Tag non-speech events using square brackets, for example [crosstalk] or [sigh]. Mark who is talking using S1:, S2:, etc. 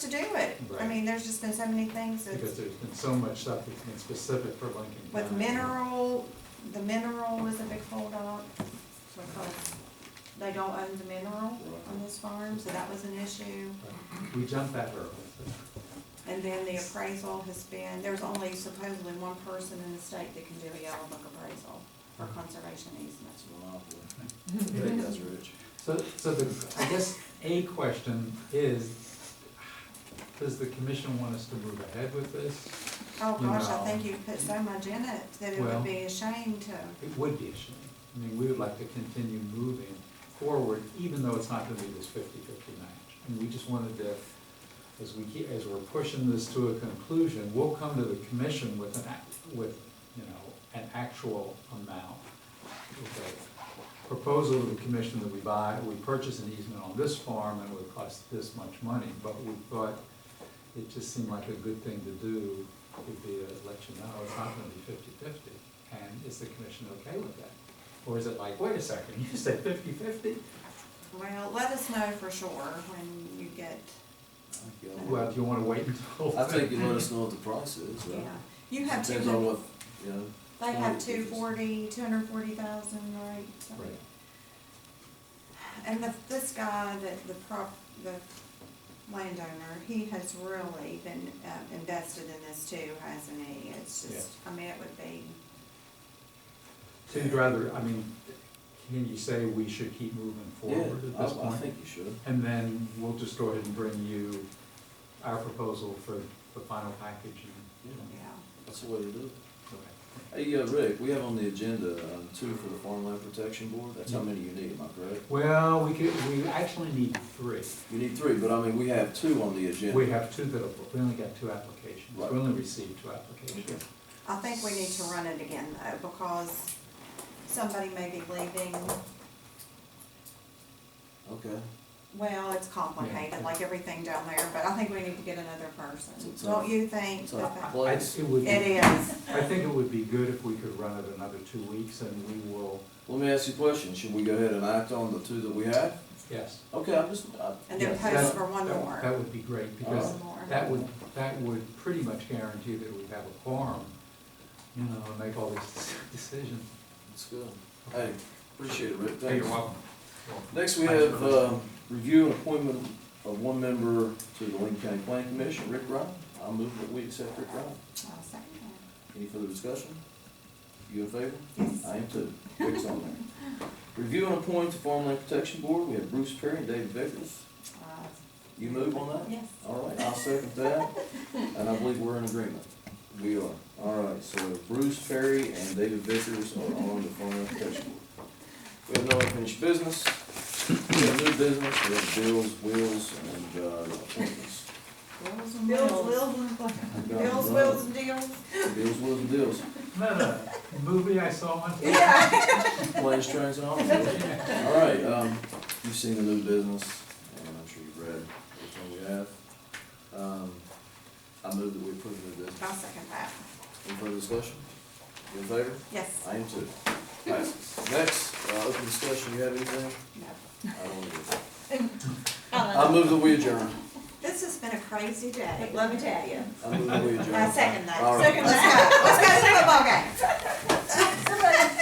S1: to do it. I
S2: Right.
S1: mean, there's just been so many things
S2: Because
S1: that's
S2: there's been so much stuff that's been specific for Lincoln County.
S1: with mineral, the mineral was a big holdup because they don't own the mineral on this farm, so that was an issue.
S2: We jumped that hurdle.
S1: And then the appraisal has been, there's only supposedly one person in the state that can do a yellow book appraisal for
S2: Uh-huh.
S1: conservation easements.
S3: That's rich.
S2: So, so the, I guess a question is, does the commission want us to move ahead with this?
S1: Oh gosh, I
S2: No.
S1: think you've put so much in it that it
S2: Well-
S1: would be a shame to,
S2: It would be a shame. I mean, we would like to continue moving forward, even though it's not gonna be this 50-50 match. And we just wanted to, as we keep, as we're pushing this to a conclusion, we'll come to the commission with an act, with, you know, an actual amount. Okay. Proposal to the commission that we buy, we purchase an easement on this farm and it would cost this much money, but we thought it just seemed like a good thing to do would be to let you know oh, it's not gonna be 50-50. And is the commission okay with that? Or is it like, wait a second, [laughs] you said 50-50?
S1: well, let us know for sure when you get,
S2: Well, do you wanna wait until?
S3: I think you let us know what the price is, right?
S1: yeah. You have two.
S3: Depends on what, you know.
S1: They have
S3: quantity
S1: two
S3: it is.
S1: forty, two hundred and forty thousand, right? something.
S2: Right.
S1: And the, this guy, that the prop, the landowner, he has really been, uh, invested in this too, hasn't he? It's just, I mean, it would be,
S2: So you'd rather, I mean, can you say we should keep moving forward at
S3: Yeah,
S2: this
S3: I, I
S2: point?
S3: think you should.
S2: And then we'll just go ahead and bring you our proposal for the final package and.
S3: Yeah.
S1: yeah.
S3: That's the way to do it.
S2: Okay.
S3: Hey, uh, Rick, we have on the agenda, um, two for the Farmland Protection Board. That's
S2: Mm-hmm.
S3: how many you need, am I correct?
S2: Well, we could, we actually need three.
S3: You need three, but I mean, we have two on the agenda.
S2: We have two that, are- we only got two applications. We
S3: Right.
S2: only received two applications.
S3: Okay.
S1: I think we need to run it again though, because somebody may be leaving.
S3: Okay.
S1: Well, it's complicated, like everything down there, but I think we need to get another person.
S3: It's a-
S1: Don't you think
S3: it's a-
S1: that that?
S3: Well,
S2: I-
S3: it's-
S2: It would,
S1: It
S2: be-
S1: is.
S2: I think it would be good if we could run it another two weeks and we will,
S3: Let me ask you a question. Should we go ahead and act on the two that we have?
S2: yes.
S3: Okay, I'm just, I,
S1: And then
S2: Yes,
S1: post
S2: that-
S1: for one
S2: that-
S1: more.
S2: That would be great, because
S1: One more.
S2: that would, that would pretty much guarantee that we'd have a quorum, you know, and make all these [laughs] decisions.
S3: it's good. Hey, appreciate it, Rick.
S2: Hey,
S3: Thanks.
S2: welcome.
S3: Next, we have, uh, review and appointment of one member to the Lincoln County Planning Commission, Rick Ryan. I move that we accept Rick Ryan.
S1: I'll second
S3: Any further discussion? You in favor?
S1: that. Yes.
S3: I am too. Rick's on there. Review and appoint to Farmland Protection Board. We have Bruce Perry and David Vickers.
S1: Uh,
S3: You move on that?
S1: Yes.
S3: All right, I'll second that, and I believe we're in agreement. We are. All right, so Bruce Perry and David Vickers are on the Farmland Protection Board. We have no unfinished business, we have new business, we have bills, wills, and, uh, appointments.
S1: Bills and
S4: Bills,
S1: wills. Bills, wills, and deals.
S3: Bills, wills, and deals.
S2: No, no, movie I saw
S3: [laughs]
S2: one.
S1: Yeah.
S3: Planes, trains, and automobiles. All right, um, you've seen the new business, and I'm sure you've read everything we have. Um, I move that we approve the new business.
S1: I'll second that.
S3: Any further discussion? You in favor?
S1: Yes.
S3: I am too. Passes. Next, uh, open discussion, you have anything?
S1: No.
S3: I don't either.
S1: [laughs]
S3: I move that we adjourn.
S1: This has been a crazy day.
S4: Let me tell you.
S3: I move that we adjourn.
S1: [laughs] I second that.
S3: All right.
S1: Let's go, let's go to the football game.